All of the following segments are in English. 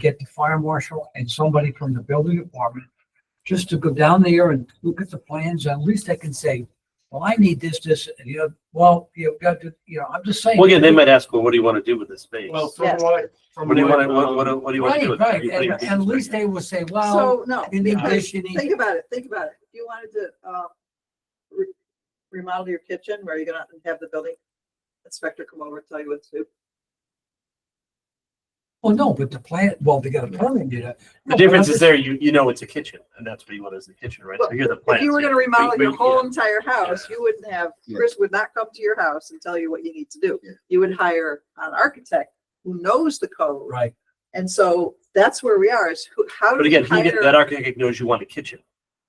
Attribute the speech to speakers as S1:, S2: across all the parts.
S1: get the fire marshal and somebody from the building department just to go down there and look at the plans. At least they can say, well, I need this, this, and you know, well, you've got to, you know, I'm just saying.
S2: Well, again, they might ask, well, what do you want to do with this space?
S3: Well,
S2: What
S3: from
S4: Yes.
S3: what, I- from
S2: do you
S3: what,
S2: want to, what,
S3: um,
S2: what, what do you want to do
S1: Right,
S2: with it?
S1: right.
S2: You
S1: And
S2: think
S1: and at
S2: it's-
S1: least they will say, well,
S4: So, no,
S1: in English, you need,
S4: think about it, think about it. If you wanted to, uh, re- remodel your kitchen, where you're gonna have the building inspector come over and tell you what to do.
S1: well, no, but the plan, well, they got a permit, you know.
S2: The difference is there, you, you know it's a kitchen, and that's what you want is the kitchen, right? So
S4: Well,
S2: here are the
S4: If
S2: plans.
S4: you were gonna
S2: We-
S4: remodel
S2: we-
S4: your whole
S2: yeah.
S4: entire house, you wouldn't have,
S5: Yeah.
S4: Chris would not come to your house and tell you what you need to do.
S5: Yeah.
S4: You would hire an architect who knows the code.
S1: Right,
S4: And so that's where we are is who, how.
S2: But
S4: do
S2: again,
S4: you
S2: he, did-
S4: hire-
S2: that architect knows you want a kitchen.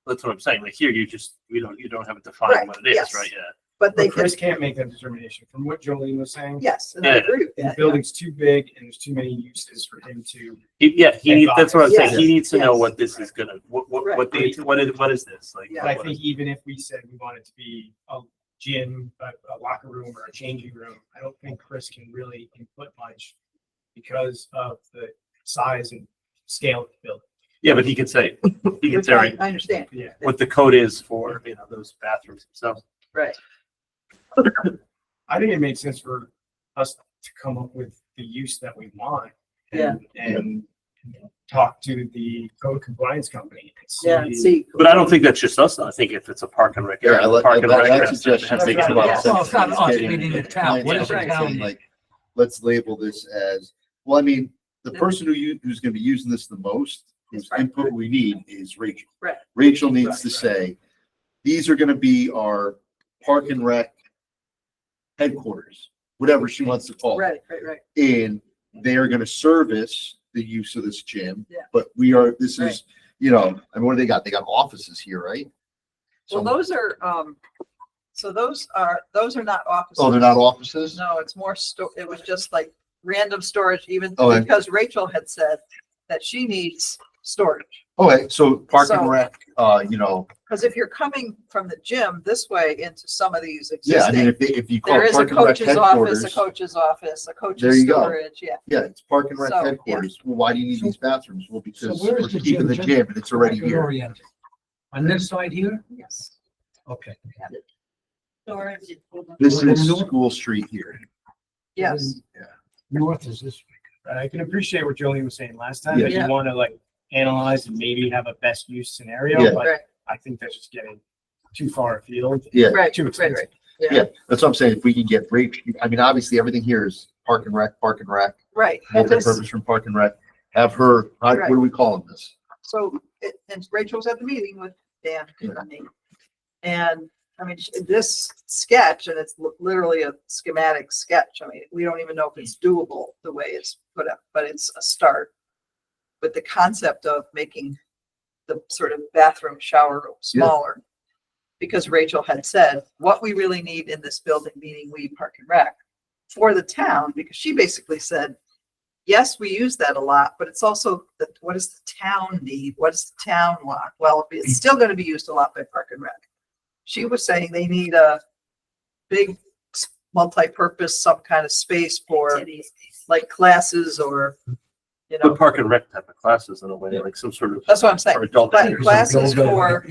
S2: That's what I'm saying. Like here, you just, we don't, you don't have it
S4: Right,
S2: defined what it is,
S4: yes.
S2: right? Yeah.
S4: But they
S3: but
S4: can,
S3: Chris can't make that determination. From what Jolene was saying,
S4: yes, and I
S2: Yeah.
S4: agree with
S3: the
S4: that. yeah.
S3: building's too big and there's too many uses for him to.
S2: He, yeah, he needs, that's what I'm saying. He
S4: Yes,
S2: needs to know
S4: yes.
S2: what this is gonna, what, what, what the,
S3: Right.
S2: what is, what is this? Like,
S4: Yeah.
S3: But I
S2: what
S3: think
S2: is-
S3: even if we said we want it to be a gym, a, a locker room or a changing room, I don't think Chris can really input much because of the size and scale of the building.
S2: yeah, but he could say, he
S4: You're
S2: could say
S4: fine, I understand,
S3: Yeah.
S2: what the code is for, you know, those bathrooms themselves.
S4: right.
S3: I think it made sense for us to come up with the use that we want. and- And talk to the code compliance company. and see-
S4: Yeah, and see.
S2: But I don't think that's just us. I think if it's a park and rec.
S5: Yeah, I like, I
S2: park and
S5: like
S2: rec
S5: that
S2: restaurant,
S5: suggestion.
S2: that makes a lot of sense.
S1: Well, it's not us,
S5: Getting
S1: we need the town.
S5: clients
S1: What
S4: is
S5: out
S4: the
S5: there
S1: town
S5: saying,
S1: need?
S5: Like, let's label this as, well, I mean, the person who you, who's gonna be using this the most, whose
S4: Right.
S5: input we need is Rachel.
S4: Right.
S5: Rachel needs to
S3: Right,
S5: say, these are gonna be our park and rec headquarters, whatever she wants to call it
S4: Right, right, right.
S5: and they are gonna service the use of this gym.
S4: Yeah.
S5: But we are, this
S4: Right.
S5: is, you know, I mean, what do they got? They got offices here, right?
S4: Well,
S5: So-
S4: those are, um, so those are, those are not offices.
S5: Oh, they're not offices?
S4: No, it's more sto, it was just like random storage even
S5: Oh, and-
S4: because Rachel had said that she needs storage.
S5: Okay, Oh, so park
S4: So-
S5: and rec, uh, you know,
S4: Cause if you're coming from the gym this way into some of these
S5: yeah, I mean,
S4: existing,
S5: if they, if you call
S4: there
S5: it
S4: is a
S5: park and rec
S4: coach's office, a
S5: headquarters.
S4: coach's office, a
S5: There
S4: coach's
S5: you go.
S4: storage, yeah.
S5: Yeah, it's park and rec
S4: So, yeah.
S5: headquarters. Well, why do you need
S1: So-
S5: these bathrooms? Well, because
S1: where
S5: we're
S1: is the
S5: keeping
S1: gym?
S5: the
S1: Just-
S5: gym and it's already here.
S1: oriented. On this side here,
S4: Yes.
S1: okay.
S4: Storage.
S5: This
S1: Well,
S5: is
S1: no-
S5: School Street here.
S4: Yes,
S1: North is this.
S3: But I can appreciate what Jolene was saying last time, that
S4: Yeah.
S3: you want to like analyze and maybe have a best use
S5: Yeah.
S3: scenario, but
S4: right,
S3: I think that's just getting too far afield.
S5: Yeah,
S4: right,
S3: Too
S4: right, right.
S3: expensive.
S4: Yeah,
S5: yeah, that's what I'm saying. If we can get Rach, I mean, obviously everything here is park and rec, park and rec,
S4: right. And this-
S5: multi-purpose from park and rec. Have her, how- what
S4: Right.
S5: do we call them this?
S4: So, it- and Rachel was at the meeting with Dan and me. And, I mean, sh- this sketch, and it's li- literally a schematic sketch, I mean, we don't even know if it's doable the way it's put up, but it's a start. With the concept of making the sort of bathroom shower room
S5: Yeah.
S4: smaller. Because Rachel had said, what we really need in this building, meaning we park and rec, for the town, because she basically said, yes, we use that a lot, but it's also, the what does the town need? What does the town want? Well, it's still gonna be used a lot by Park and Rec. She was saying they need a big s- multi-purpose, some kind of space for like classes or, you
S2: But
S4: know,
S2: park and rec type of classes in a way, like some sort of.
S4: that's what I'm saying.
S2: for adult
S4: But
S2: use.
S4: class- Classes for-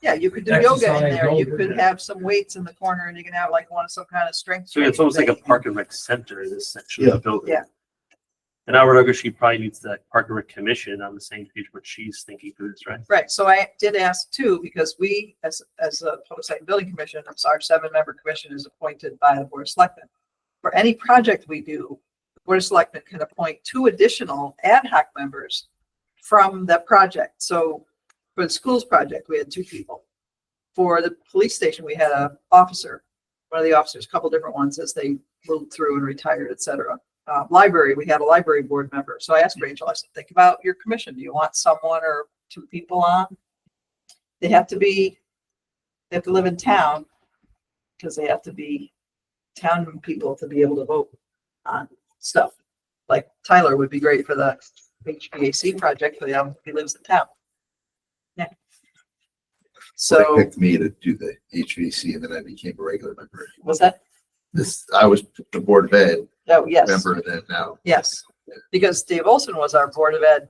S4: Yeah, you could do yoga in
S1: Exercise,
S4: there. You
S1: yoga,
S4: could
S1: yeah.
S4: have some weights in the corner and you can have like one, some kind of strength.
S2: So it's almost like a
S4: training
S2: park and rec center in this section of the building.
S4: Yeah.
S2: And I would argue she probably needs that park and rec commission on the same page what she's thinking through this, right?
S4: thing. Right, so I did ask too, because we, as, as a public site and building commission, I'm sorry, seven-member commission is appointed by the board of selectmen. For any project we do, the board of selectmen can appoint two additional ad hoc members from the project. So for the schools project, we had two people. For the police station, we had a officer, one of the officers, a couple different ones as they moved through and retired, et cetera. Uh, library, we had a library board member. So I asked Rachel, I said, think about your commission. Do you want someone or two people on? They have to be, they have to live in town because they have to be town people to be able to vote on stuff. Like Tyler would be great for the HVAC project, but um, he lives in town. Yeah.
S5: So they
S4: So
S5: picked me to do the HVAC and then I became a regular member.
S4: was that,
S5: This, I was the board of ed
S4: oh, yes,
S5: member then now.
S4: yes. Because Dave Olson was our Board of Ed